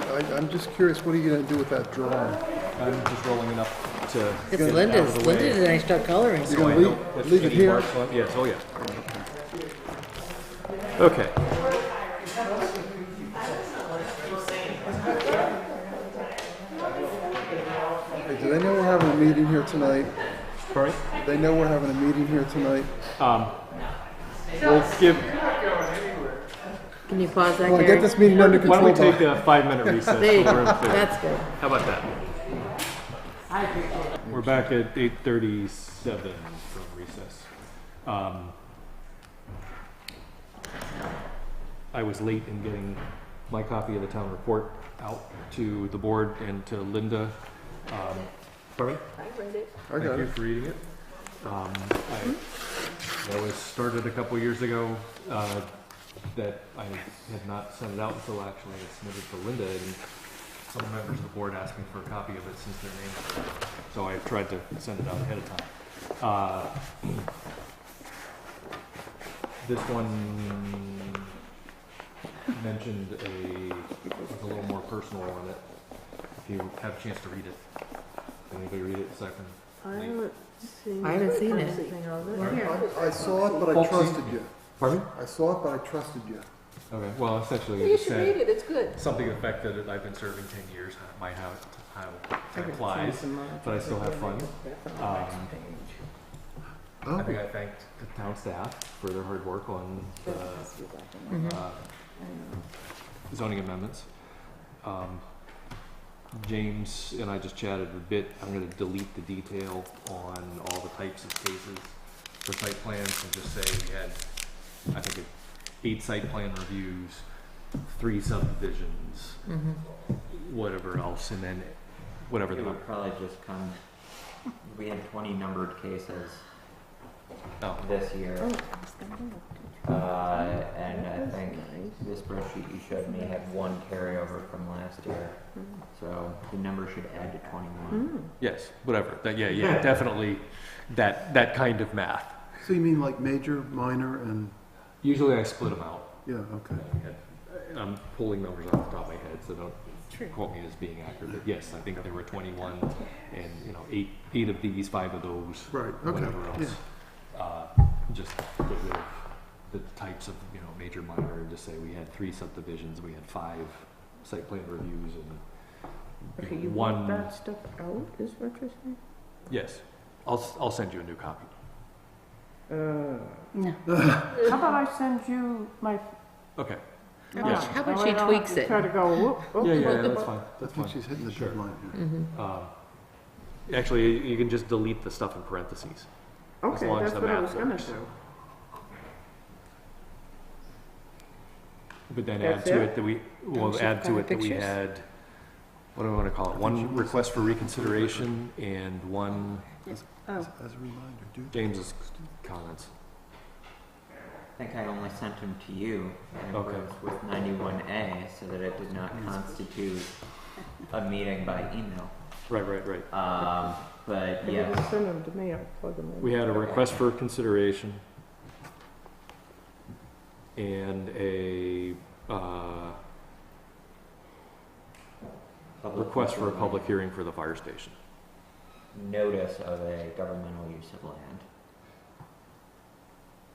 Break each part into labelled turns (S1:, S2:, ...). S1: I, I'm just curious, what are you gonna do with that drawing?
S2: I'm just rolling it up to. get
S3: Because
S2: it out of
S3: Linda's,
S2: the
S3: Linda
S2: way.
S3: did a nice job coloring.
S1: You're
S2: So
S1: gonna
S2: I
S1: leave,
S2: don't- if
S1: leave it
S2: any
S1: here?
S2: marks on- Yes, oh yeah. Okay.
S1: Hey, Do they know we're having a meeting here tonight?
S2: Sorry?
S1: They know we're having a meeting here tonight?
S2: We'll give,
S3: Can you pause that,
S1: Wanna get
S3: Gary?
S1: this meeting under
S2: why don't
S1: control,
S2: we take
S1: Bob?
S2: a five-minute recess?
S3: There you
S2: so
S3: go.
S2: we're in clear.
S3: That's good.
S2: How about that? We're back at eight thirty-seven from recess. Um, I was late in getting my copy of the town report out to the board and to Linda. Um, Pardon me?
S1: I got
S2: Thank you
S1: it.
S2: for reading it. Um, I, that was started a couple years ago, uh, that I had not sent it out until actually I submitted to Linda, and some members of the board asked me for a copy of it since their name was on it. So I tried to send it out ahead of time. Uh, This one mentioned a, was a little more personal on it, if you have a chance to read it. Anybody read it aside from
S4: I haven't seen.
S3: I haven't seen it.
S4: anything of it.
S3: We're here.
S1: I saw it, but I
S2: Bob, see?
S1: trusted you.
S2: Pardon?
S1: I saw it, but I trusted you.
S2: Okay, well, essentially,
S4: You should read it, it's good.
S2: something to the effect that I've been serving 10 years, my how, how time flies, but I still have fun. Um, I
S1: Oh,
S2: think I thanked the town staff for their hard work on the uh, zoning amendments. Um, James and I just chatted a bit, I'm gonna delete the detail on all the types of cases for site plans and just say we had, I think, eight site plan reviews, three subdivisions,
S3: Mhm.
S2: whatever else, and then whatever the
S5: It
S2: number.
S5: would probably just come, we had twenty numbered cases
S2: Oh,
S5: this year. Uh, and I think this spreadsheet you showed me had one carryover from last year. So the number should add to
S3: Hmm.
S5: twenty-one.
S2: yes, whatever, that, yeah, yeah, definitely, that, that kind of math.
S1: So you mean like major, minor, and,
S2: Usually I split them out.
S1: yeah, okay.
S2: And I'm pulling numbers off the top of my head, so don't quote me as being accurate. But yes, I think there were 21, and you know, eight, eight of these, five of those,
S1: Right, okay,
S2: whatever else. Uh, just get rid of the types of you know major minor, and just say we had three subdivisions, we had five site plan reviews, and you know, one.
S4: stuff out, is what you're saying?
S2: Yes, I'll s- I'll send you a new copy.
S6: Uh, How about I send you my?
S2: Okay.
S3: about-
S2: Yeah.
S3: how about
S6: that
S3: she
S6: way I don't have
S3: tweaks
S6: to
S3: it?
S6: Try to go, whoop,
S1: Oh,
S6: whoop.
S2: Yeah, yeah,
S3: well, the
S2: that's
S3: bu-
S2: fine.
S1: I
S2: That's
S1: think
S2: fine.
S1: she's hitting the
S2: Sure.
S1: deadline here.
S3: Mm-hmm.
S2: Um, actually, you can just delete the stuff in parentheses.
S6: Okay,
S2: long as
S6: that's
S2: the
S6: what I
S2: map
S6: was gonna
S2: works.
S6: do.
S2: But then add
S6: That's
S2: to
S6: it?
S2: it that we, we'll
S3: she's
S2: add to
S3: got
S2: it that we
S3: pictures.
S2: had, what do we wanna call it? One request for reconsideration and one Oh.
S1: As as a reminder, do.
S2: James's comments.
S5: I think I only sent them to you in
S2: Okay.
S5: accordance with ninety-one A, so that it did not constitute a meeting by email.
S2: Right, right, right.
S5: Um, but
S6: If you
S5: yes,
S6: can send them to me, I'll plug them in.
S2: We had a request for consideration and a, uh,
S5: public
S2: request for a
S5: improvement.
S2: public hearing for the fire station.
S5: notice of a governmental use of land.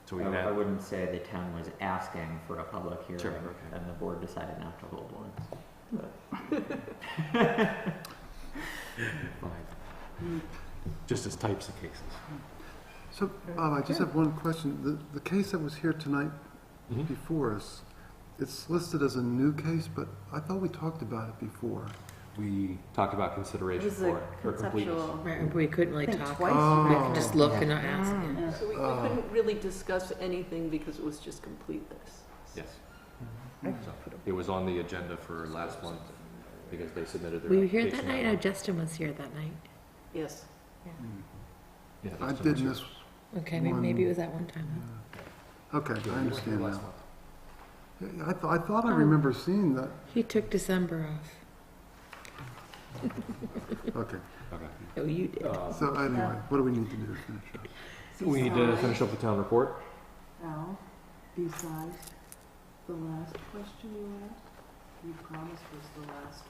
S2: So we
S5: I-
S2: can
S5: I
S2: add,
S5: wouldn't say the town was asking for a public
S2: Sure,
S5: hearing,
S2: okay.
S5: and the board decided not to hold one.
S2: fine. Just as types of cases.
S1: So, Bob, I just have one question. The, the case that was here tonight
S2: Mhm.
S1: before us, it's listed as a new case, but I thought we talked about it before.
S2: We talked about consideration
S4: was a
S2: for it. or completeness.
S4: conceptual.
S3: We couldn't really
S4: Think
S3: talk.
S4: twice.
S3: We
S1: Oh.
S3: could just look and not ask. yeah.
S4: So we
S1: Oh.
S4: couldn't really discuss anything because it was just complete this.
S2: Yes.
S3: Mm-hmm.
S2: So, It was on the agenda for last month because they submitted their.
S3: Were you here that
S2: application
S3: night? No,
S2: month.
S3: Justin was here that night.
S4: Yes.
S2: Yeah,
S1: I
S2: Mm. that's
S1: did
S2: what-
S1: miss,
S3: Okay, may- maybe it was that one time. huh?
S1: okay,
S2: Yeah,
S1: I
S2: you were here
S1: understand
S2: last
S1: now.
S2: month.
S1: Yeah, I, th- I thought I
S3: Oh.
S1: remember seeing that.
S3: He took December off.
S1: Okay,
S2: Okay.
S3: Oh, you did.
S2: Uh,
S1: so anyway, what do we need to do to finish up?
S2: We need to finish up the town report.
S4: Al, besides the last question you asked, you promised was the last